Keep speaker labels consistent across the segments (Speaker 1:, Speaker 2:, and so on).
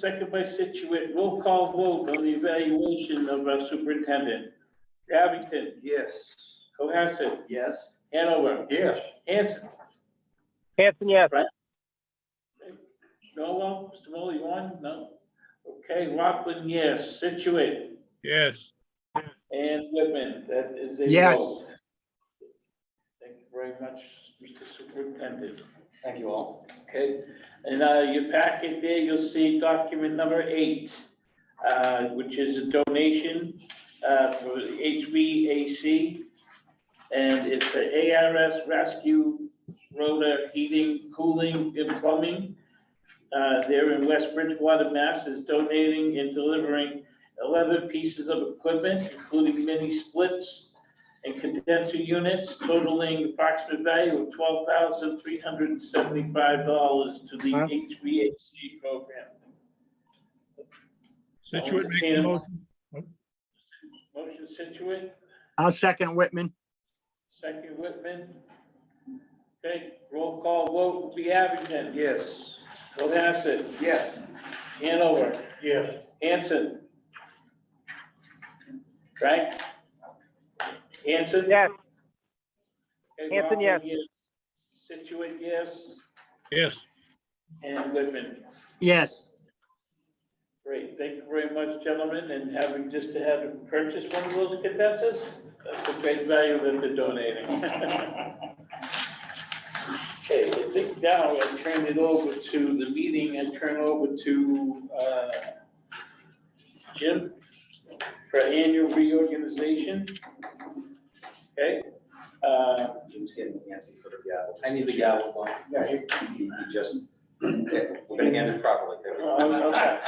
Speaker 1: second by Situate. Roll call vote on the evaluation of our superintendent. Abington,
Speaker 2: Yes.
Speaker 1: Cohasset,
Speaker 2: Yes.
Speaker 1: Hanover,
Speaker 2: Yes.
Speaker 1: Hanson,
Speaker 3: Hanson, yes.
Speaker 1: Noel, Mr. Mulley, you on? No? Okay, Rockland, yes. Situate
Speaker 4: yes,
Speaker 1: and Whitman, that is a
Speaker 5: Yes.
Speaker 1: vote. Thank you very much, Mr. Superintendent.
Speaker 2: Thank you all.
Speaker 1: Okay, and uh, your packet there, you'll see document number eight, uh, which is a donation uh, for the HVAC. And it's a ARS Rescue Rotor Heating, Cooling, and Plumbing. Uh, They're in West Bridgewater, Mass. is donating and delivering 11 pieces of equipment, including mini splits and condenser units totaling approximate value of twelve thousand three hundred and seventy-five dollars to the
Speaker 5: Wow.
Speaker 1: HVAC program.
Speaker 4: Situate makes a motion,
Speaker 1: Motion Situate,
Speaker 5: I'll second Whitman.
Speaker 1: second Whitman. Okay, roll call vote will be Abington.
Speaker 2: Yes.
Speaker 1: Cohasset,
Speaker 2: Yes.
Speaker 1: Hanover,
Speaker 2: Yes.
Speaker 1: Hanson. Frank? Hanson?
Speaker 3: Yes.
Speaker 1: Okay,
Speaker 3: Hanson, yes.
Speaker 1: Rockland, Situate, yes,
Speaker 4: yes,
Speaker 1: and Whitman.
Speaker 5: Yes,
Speaker 1: Great, thank you very much, gentlemen, and having just to have them purchase one of those condensers, that's a great value that they're donating. Okay, I think now I turn it over to the meeting and turn over to, uh, Jim for annual reorganization. Okay, uh,
Speaker 2: Jim's getting antsy for the gavel. I need the gavel one. No, you, you you just, we're gonna end it properly.
Speaker 1: Oh, okay.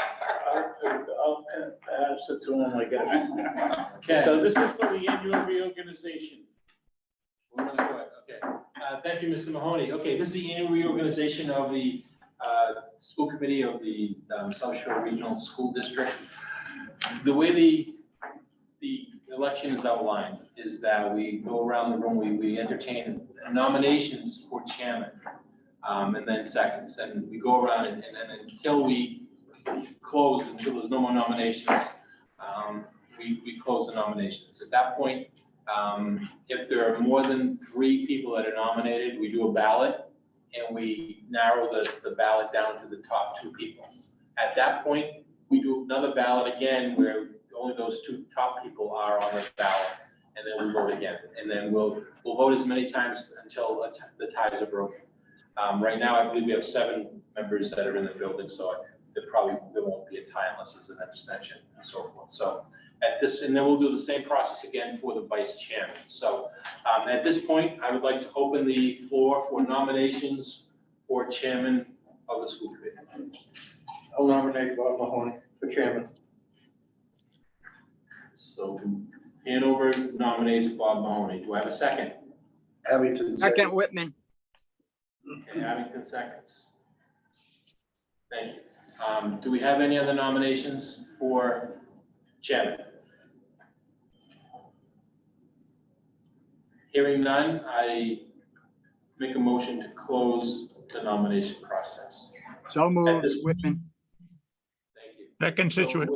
Speaker 1: I'll, I'll, I'll sit to him, I guess. So this is for the annual reorganization.
Speaker 6: We're really quick, okay. Uh, Thank you, Mr. Mahoney. Okay, this is the annual reorganization of the uh, school committee of the um, South Shore Regional School District. The way the, the election is outlined is that we go around the room, we, we entertain nominations for chairman, um, and then seconds, and we go around and and then until we close, until there's no more nominations, um, we, we close the nominations. At that point, um, if there are more than three people that are nominated, we do a ballot and we narrow the, the ballot down to the top two people. At that point, we do another ballot again where only those two top people are on the ballot. And then we vote again. And then we'll, we'll vote as many times until a t- the ties are broken. Um, right now, I believe we have seven members that are in the building, so there probably, there won't be a tie unless there's an abstention and so forth. So at this, and then we'll do the same process again for the vice chairman. So um, at this point, I would like to open the floor for nominations for chairman of the school committee.
Speaker 2: I'll nominate Bob Mahoney for chairman.
Speaker 6: So Hanover nominates Bob Mahoney. Do I have a second?
Speaker 2: Abington.
Speaker 5: second Whitman.
Speaker 6: Okay, Abington seconds. Thank you. Um, Do we have any other nominations for chairman? Hearing none, I make a motion to close the nomination process.
Speaker 5: So moved, Whitman.
Speaker 6: Thank you.
Speaker 4: second Situate,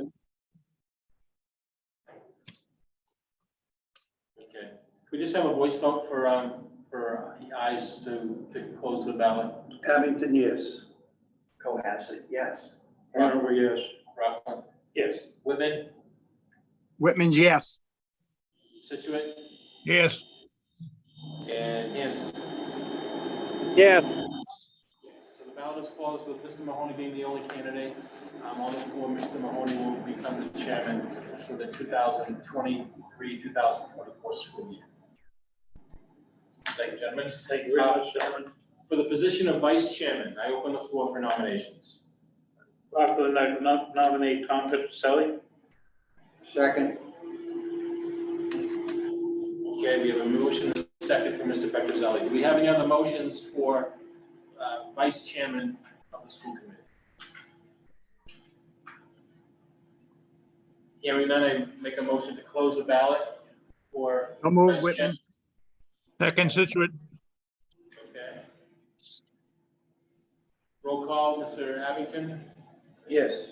Speaker 6: Okay, Could we just have a voice vote for, um, for the eyes to, to close the ballot?
Speaker 2: Abington, yes. Cohasset, yes.
Speaker 1: Hanover, yes.
Speaker 6: Rockland,
Speaker 1: Yes.
Speaker 6: Whitman,
Speaker 5: Whitman's yes.
Speaker 6: Situate,
Speaker 4: yes,
Speaker 6: and Hanson.
Speaker 3: Yes.
Speaker 6: So the ballot is closed with Mr. Mahoney being the only candidate. Um, on the floor, Mr. Mahoney will become the chairman for the 2023, 2024 school year. Thank you, gentlemen.
Speaker 1: Thank you very much, gentlemen.
Speaker 6: For the position of vice chairman, I open the floor for nominations.
Speaker 1: Rockland, I nom- nominate Tom Petroselli.
Speaker 2: Second.
Speaker 6: Okay, we have a motion, a second for Mr. Petrozelli. Do we have any other motions for uh, vice chairman of the school committee? Hearing none, I make a motion to close the ballot for.
Speaker 5: So moved,
Speaker 6: vice
Speaker 5: Whitman.
Speaker 4: second Situate,
Speaker 6: chair- Okay. Roll call, Mr. Abington,
Speaker 2: Yes.